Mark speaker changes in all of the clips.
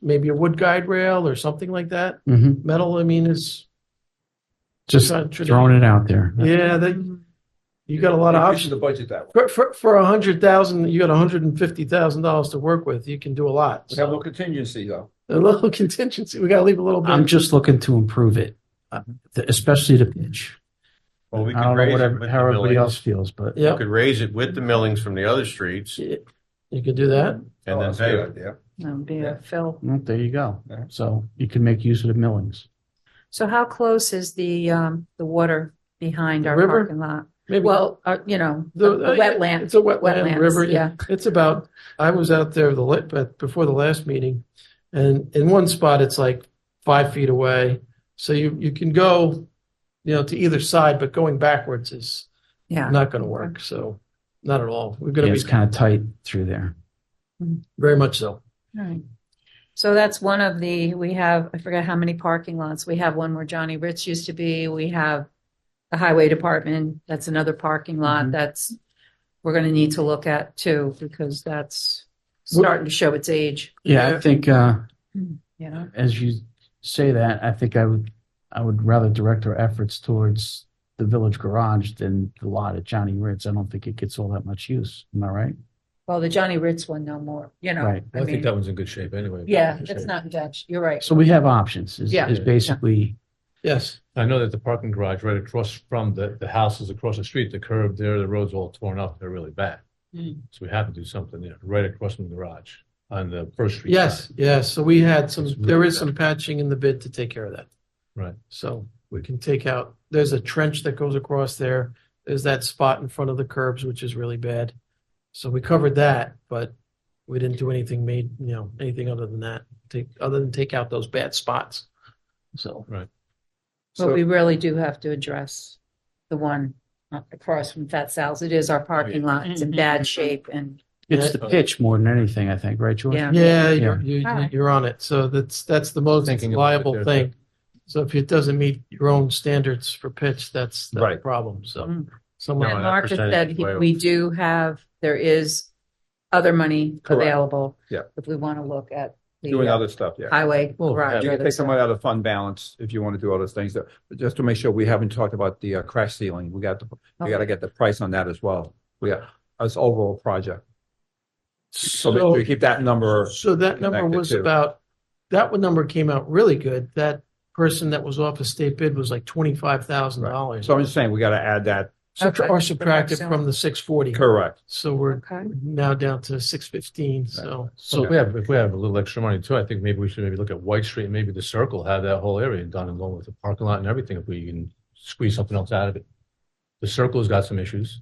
Speaker 1: maybe a wood guide rail or something like that.
Speaker 2: Mhm.
Speaker 1: Metal, I mean, is
Speaker 2: Just
Speaker 1: not tradi-
Speaker 2: throwing it out there.
Speaker 1: yeah, that you got a lot of
Speaker 3: Increasing
Speaker 1: options.
Speaker 3: the budget that way.
Speaker 1: For for, for a hundred thousand, you got a hundred and fifty thousand dollars to work with. You can do a lot.
Speaker 3: We have a
Speaker 1: So,
Speaker 3: little contingency though.
Speaker 1: a little contingency. We got to leave a little bit.
Speaker 2: I'm just looking to improve it, uh, th- especially the pitch.
Speaker 4: Well, we
Speaker 2: I
Speaker 4: could
Speaker 2: don't know
Speaker 4: raise
Speaker 2: what
Speaker 4: it
Speaker 2: ev-
Speaker 4: with
Speaker 2: how
Speaker 4: the
Speaker 2: everybody else
Speaker 4: millings.
Speaker 2: feels, but
Speaker 4: We
Speaker 1: yeah,
Speaker 4: could raise it with the millings from the other streets
Speaker 1: you could do that.
Speaker 4: and then
Speaker 3: Oh, that's a
Speaker 4: pay
Speaker 3: good
Speaker 4: it.
Speaker 3: idea.
Speaker 5: No, be a fill.
Speaker 2: well, there you go.
Speaker 3: Yeah.
Speaker 2: So you can make use of the millings.
Speaker 5: So how close is the, um, the water behind
Speaker 1: The
Speaker 5: our
Speaker 1: river?
Speaker 5: parking lot?
Speaker 1: Maybe
Speaker 5: Well, uh, you know, the the
Speaker 1: uh, yeah,
Speaker 5: wetland.
Speaker 1: It's a wetland
Speaker 5: Wetlands,
Speaker 1: river.
Speaker 5: yeah.
Speaker 1: It's about, I was out there the, la- but before the last meeting and in one spot, it's like five feet away. So you, you can go, you know, to either side, but going backwards is
Speaker 5: Yeah.
Speaker 1: not going to work. So not at all. We're
Speaker 2: Yeah,
Speaker 1: going to
Speaker 2: it's
Speaker 1: be
Speaker 2: kind of tight through there.
Speaker 1: very much so.
Speaker 5: Right. So that's one of the, we have, I forget how many parking lots. We have one where Johnny Ritz used to be. We have the highway department. That's another parking lot.
Speaker 1: Mm-hmm.
Speaker 2: Mhm.
Speaker 5: That's, we're going to need to look at too, because that's starting to show its age,
Speaker 2: Yeah,
Speaker 1: Yeah.
Speaker 2: I think, uh,
Speaker 5: you know?
Speaker 2: as you say that, I think I would, I would rather direct our efforts towards the village garage than the lot at Johnny Ritz. I don't think it gets all that much use. Am I right?
Speaker 5: Well, the Johnny Ritz one no more, you know?
Speaker 2: Right.
Speaker 5: I mean,
Speaker 4: one's in good shape anyway.
Speaker 5: yeah, it's not in Dutch. You're right.
Speaker 2: So we have options is,
Speaker 5: Yeah.
Speaker 2: is basically,
Speaker 1: Yes.
Speaker 6: I know that the parking garage right across from the, the houses across the street, the curb there, the road's all torn up. They're really bad.
Speaker 5: Mm.
Speaker 6: So we have to do something there, right across from the garage on the first street.
Speaker 1: Yes. Yes. So we had some,
Speaker 6: It's really
Speaker 1: there is
Speaker 6: bad.
Speaker 1: some patching in the bid to take care of that.
Speaker 6: Right.
Speaker 1: So we can take out, there's a trench that goes across there. There's that spot in front of the curbs, which is really bad. So we covered that, but we didn't do anything made, you know, anything other than that, take, other than take out those bad spots. So.
Speaker 6: Right.
Speaker 5: But
Speaker 1: So,
Speaker 5: we really do have to address the one up across from Fat Sal's. It is our parking lot. It's in
Speaker 4: Mm-hmm.
Speaker 5: bad shape and
Speaker 2: it's the pitch more than anything, I think, right, George?
Speaker 5: Yeah.
Speaker 1: yeah, you're, you-
Speaker 5: Alright.
Speaker 1: you're on it. So that's, that's the most
Speaker 4: Thinking about it
Speaker 1: liable
Speaker 4: there,
Speaker 1: thing. So if it doesn't meet your own standards for pitch, that's the
Speaker 4: Right.
Speaker 1: problem. So
Speaker 5: Mm.
Speaker 1: someone.
Speaker 4: No,
Speaker 5: And
Speaker 4: that
Speaker 5: Mark just
Speaker 4: percentage
Speaker 5: said
Speaker 4: is
Speaker 5: he-
Speaker 4: way
Speaker 5: we do have, there is other money
Speaker 3: Correct.
Speaker 5: available.
Speaker 3: Yeah.
Speaker 5: If we want to look at
Speaker 3: Doing
Speaker 5: the
Speaker 3: other stuff, yeah.
Speaker 5: highway
Speaker 1: Well,
Speaker 5: garage.
Speaker 3: You
Speaker 5: or
Speaker 3: can take
Speaker 5: the-
Speaker 3: some out of fund balance if you want to do all those things. though. But Just to make sure, we haven't talked about the uh, crash ceiling. We got, the we got to get the price on that as well. We got, as overall project. So make sure you keep that number,
Speaker 1: So that number
Speaker 3: connected
Speaker 1: was
Speaker 3: to.
Speaker 1: about, that one number came out really good. That person that was off a state bid was like twenty-five thousand dollars.
Speaker 3: so I'm just saying, we got to add that,
Speaker 5: Okay.
Speaker 1: Or subtracted from the six forty.
Speaker 3: correct.
Speaker 1: So we're
Speaker 5: Okay.
Speaker 1: now down to six fifteen, so.
Speaker 6: So if we have, if we have a little extra money too, I think maybe we should maybe look at White Street, maybe the circle, have that whole area done along with the parking lot and everything, if we can squeeze something else out of it. The circle's got some issues.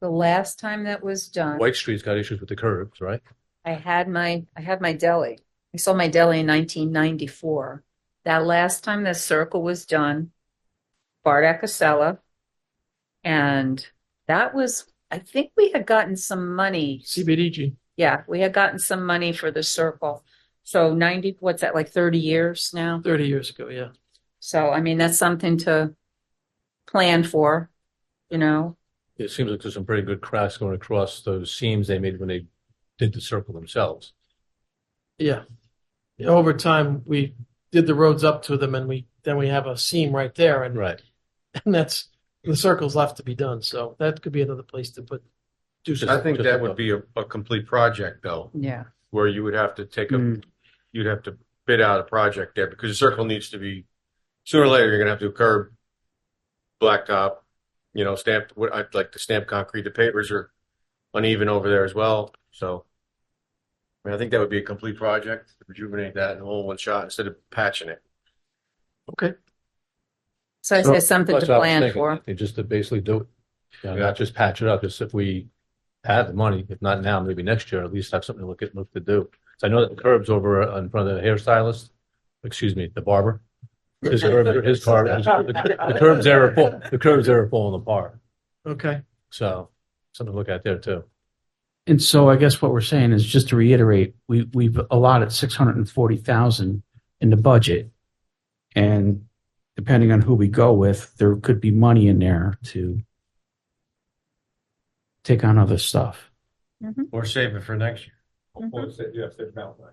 Speaker 5: The last time that was done,
Speaker 6: White Street's got issues with the curbs, right?
Speaker 5: I had my, I had my deli. I sold my deli in nineteen ninety-four. That last time this circle was done, Bart Acasella. And that was, I think we had gotten some money.
Speaker 1: CBDG,
Speaker 5: Yeah, we had gotten some money for the circle. So 90, what's that, like 30 years now?
Speaker 1: thirty years ago, yeah.
Speaker 5: So, I mean, that's something to plan for, you know?
Speaker 6: It seems like there's some pretty good cracks going across those seams they made when they did the circle themselves.
Speaker 1: Yeah. Yeah, Over time, we did the roads up to them and we, then we have a seam right there and,
Speaker 6: Right.
Speaker 1: and that's, the circle's left to be done. So that could be another place to put, do
Speaker 4: I
Speaker 1: something.
Speaker 4: think that would be a, a complete project though,
Speaker 5: Yeah.
Speaker 4: where you would have to take a,
Speaker 2: Mm.
Speaker 4: you'd have to bid out a project there because the circle needs to be, sooner or later, you're gonna have to do curb, blacktop, you know, stamped, what, I'd like to stamp concrete, the pavers are uneven over there as well, so. I mean, I think that would be a complete project, to rejuvenate that in all one shot instead of patching it.
Speaker 5: So I
Speaker 2: So-
Speaker 5: say something to
Speaker 6: That's what I was
Speaker 5: plan
Speaker 6: thinking.
Speaker 5: for.
Speaker 6: They just to basically do it, you know, not just patch it up, just if we have the money, if not now, maybe next year, at least have something to look at, look to do. So I know that the curbs over in front of the hairstylist, excuse me, the barber. His curb, his car, his- the curbs there are, fall- the curbs there are falling apart,
Speaker 1: Okay.
Speaker 6: so something to look at there too.
Speaker 2: And so I guess what we're saying is just to reiterate, we, we've allotted six hundred and forty thousand in the budget. And depending on who we go with, there could be money in there to take on other stuff.
Speaker 4: Or save it for next year.
Speaker 5: Mhm.
Speaker 3: Yes, there's mountain.